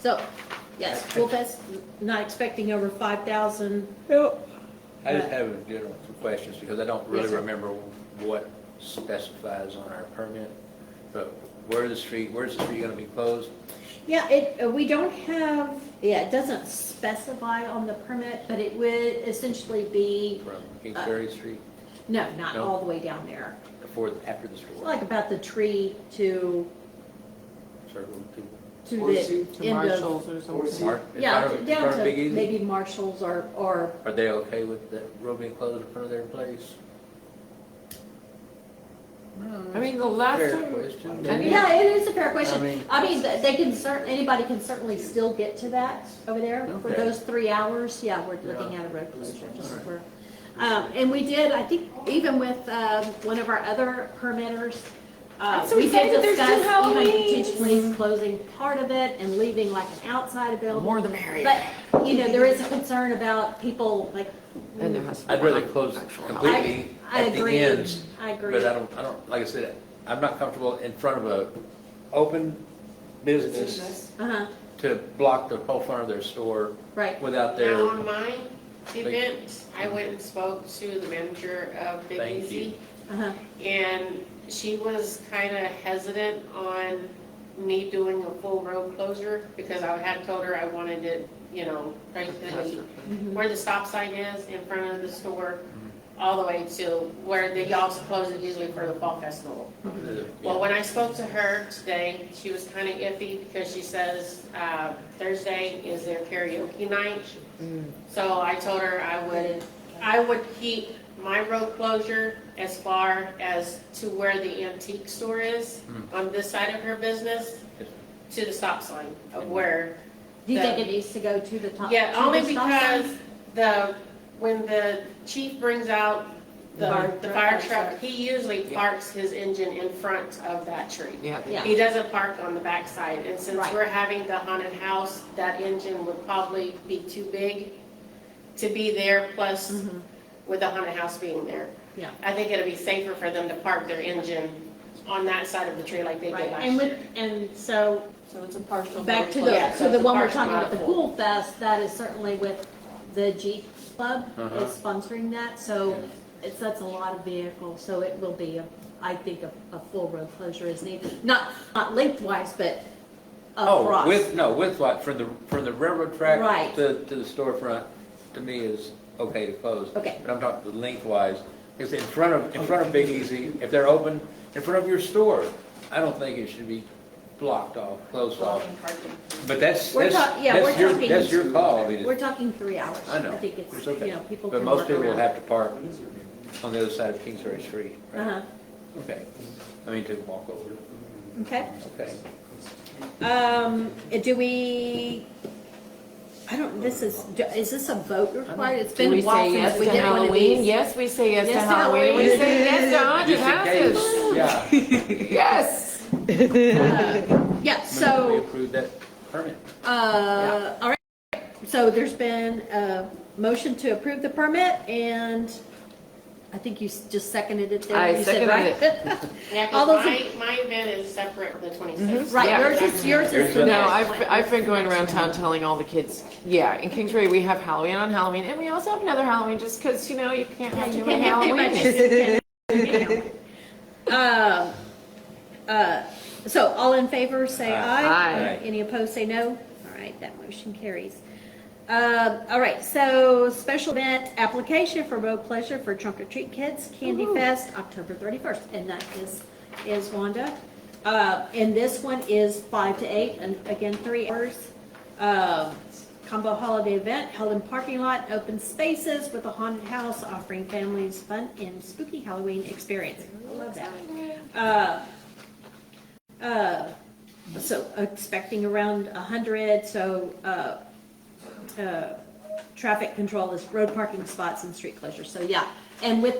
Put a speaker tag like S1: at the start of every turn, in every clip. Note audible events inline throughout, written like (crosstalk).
S1: So, yes, Wolfest, not expecting over five thousand.
S2: I just have a general two questions, because I don't
S1: Yes,
S2: really
S1: sir.
S2: remember what specifies on our permit, but where the street, where's the street gonna be closed?
S1: Yeah, it, uh, we don't have, yeah, it doesn't specify on the permit, but it would essentially be,
S2: From
S1: Uh,
S2: Kingsbury Street,
S1: no, not
S2: No.
S1: all the way down there.
S2: before, after the store,
S1: Like about the tree to,
S2: circle
S1: to
S3: Or see
S1: the
S3: to
S1: end of.
S3: Marshalls or something.
S2: to. Mark- in
S1: Yeah,
S2: front of- in
S1: down
S2: front
S1: to
S2: of Big Easy?
S1: maybe Marshalls or, or,
S2: Are they okay with the road being closed in front of their place?
S3: I mean, the last
S2: Fair
S3: time,
S2: question.
S3: I mean-
S1: yeah, it is a fair
S2: I
S1: question.
S2: mean-
S1: I mean, th- they can cer, anybody can certainly still get to that over there for
S2: Okay.
S1: those three hours. Yeah, we're looking
S2: Yeah.
S1: at a road closure. just
S2: Alright.
S1: for- Um, and we did, I think, even with, um, one of our other permitters, uh,
S4: I'm so
S1: we did
S4: excited there's
S1: discuss
S4: still
S1: even
S4: Halloween.
S1: potentially closing part of it and leaving like an outside building.
S3: more the merrier.
S1: But, you know, there is a concern about people like.
S3: And there has to be.
S2: I'd rather close
S3: actual-
S1: I,
S2: completely
S1: I
S2: at the
S1: agree.
S2: ends
S1: I agree.
S2: But I don't, I don't, like I said, I'm not comfortable in front of a open business
S1: Uh-huh,
S2: to block the whole front of their store
S1: right.
S2: without
S5: Now,
S2: their,
S5: on my event, I went and spoke to the manager of Big
S2: Thank
S5: Easy,
S1: Uh-huh.
S5: and she was kind of hesitant on me doing a full road closure, because I had told her I wanted it, you know, right to the,
S1: Mhm.
S5: where the stop sign is in front of the store, all the way to where they also close it usually for the fall festival.
S1: Mm-hmm.
S5: Well, when I spoke to her today, she was kind of iffy because she says uh, Thursday is their karaoke night.
S3: Mm.
S5: So I told her I would, I would keep my road closure as far as to where the antique store is
S2: Mm.
S5: on this side of her business to the stop sign
S3: Mm.
S5: of where,
S1: Do you think it needs to go to the top?
S5: yeah,
S1: to the
S5: only
S1: stop sign?
S5: because the, when the chief brings out the,
S1: Fire
S5: the fire
S1: truck,
S5: truck, he usually
S3: Yeah.
S5: parks his engine in front of that tree.
S3: Yeah,
S1: Yeah,
S5: He doesn't park on the backside, and since
S1: Right.
S5: we're having the haunted house, that engine would probably be too big to be there, plus
S1: Mhm.
S5: with the haunted house being there.
S1: Yeah.
S5: I think it'd be safer for them to park their engine on that side of the tree like they
S1: right.
S5: did last
S1: And
S5: year.
S1: with, and so,
S4: So it's a partial.
S1: back to
S5: Yeah,
S1: the,
S5: so
S1: so the
S5: the
S1: one we're
S5: park's
S1: talking
S5: not
S1: about, the
S5: full.
S1: Pool Fest, that is certainly with the Jeep Club
S2: Uh-huh.
S1: is sponsoring that, so it's, that's a lot of vehicles, so it will be, a- I think, a, a full road closure is needed. Not, not lengthwise, but
S2: Oh,
S1: across.
S2: with, no, with what, from the, from the railroad
S1: Right.
S2: track to, to the storefront, to me is okay to close.
S1: Okay.
S2: But I'm talking lengthwise, because in front of, in front of Big Easy, if they're open, in front of your store, I don't think it should be blocked off, closed off. But that's,
S1: We're
S2: that's,
S1: talk- yeah, we're
S2: that's your,
S1: talking-
S2: that's your call, I mean, it's-
S1: We're talking three hours.
S2: I know.
S1: think it's,
S2: It's
S1: you
S2: okay.
S1: know, people
S2: But
S1: can
S2: most
S1: work
S2: people will
S1: around.
S2: have to park on the other side of Kingsbury Street, right?
S1: Uh-huh,
S2: Okay. I mean, to walk over,
S1: okay.
S2: okay.
S1: Um, do we, I don't, this is, do- is this a vote required? It's
S3: Do
S1: been
S3: we
S1: a while
S3: say
S1: since
S3: yes
S1: we
S3: to
S1: did one of
S3: Halloween?
S1: these.
S3: Yes, we say yes to
S1: Yes to Halloween.
S3: Halloween. We say yes to haunted
S2: Just in case, yeah.
S3: houses. Yes.
S1: Uh, Yeah,
S2: We
S1: so,
S2: approved that permit.
S1: uh, all right, so there's been a motion to approve the permit, and I think you s- just seconded it there.
S3: I
S1: You said, right?
S3: seconded
S5: Yeah,
S1: (laughs) All
S5: 'cause
S1: those Mm-hmm.
S5: my, my event is separate from the twenty-sixth.
S1: Right,
S3: Yeah.
S1: yours is, yours is the
S2: Yours is-
S3: No,
S1: next
S3: I've,
S1: one.
S3: I've been going around town telling all the kids, yeah, in Kingsbury, we have Halloween on Halloween, and we also have another Halloween, just because, you know, you can't
S1: Yeah,
S3: have
S1: (laughs) you
S3: too many
S1: can't have
S3: Halloweens.
S1: too much. (laughs) Um, uh, So all in favor, say
S2: Aye.
S1: aye.
S2: Aye.
S1: Any opposed, say no. All right, that motion carries. Uh, All right, so special event application for Road Pleasure for Trunk or Treat Kids Candy Fest, October 31st. And that is, is Wanda. Uh, And this one is five to eight, and again, three hours. Um, Combo holiday event held in parking lot, open spaces with a haunted house offering families fun and spooky Halloween experience. I love that. Uh, uh, So expecting around 100, so uh, uh, traffic control is road parking spots and street closures. So yeah, and with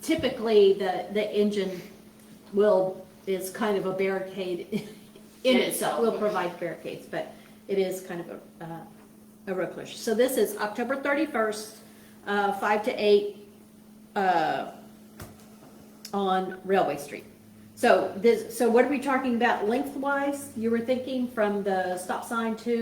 S1: typically the, the engine will, is kind of a barricade (laughs) in
S5: In
S1: itself.
S5: itself.
S1: Will provide barricades, but it is kind of a, uh, a road closure. So this is October 31st, uh, 5 to 8 uh, on Railway Street. So this, so what are we talking about lengthwise? You were thinking from the stop sign to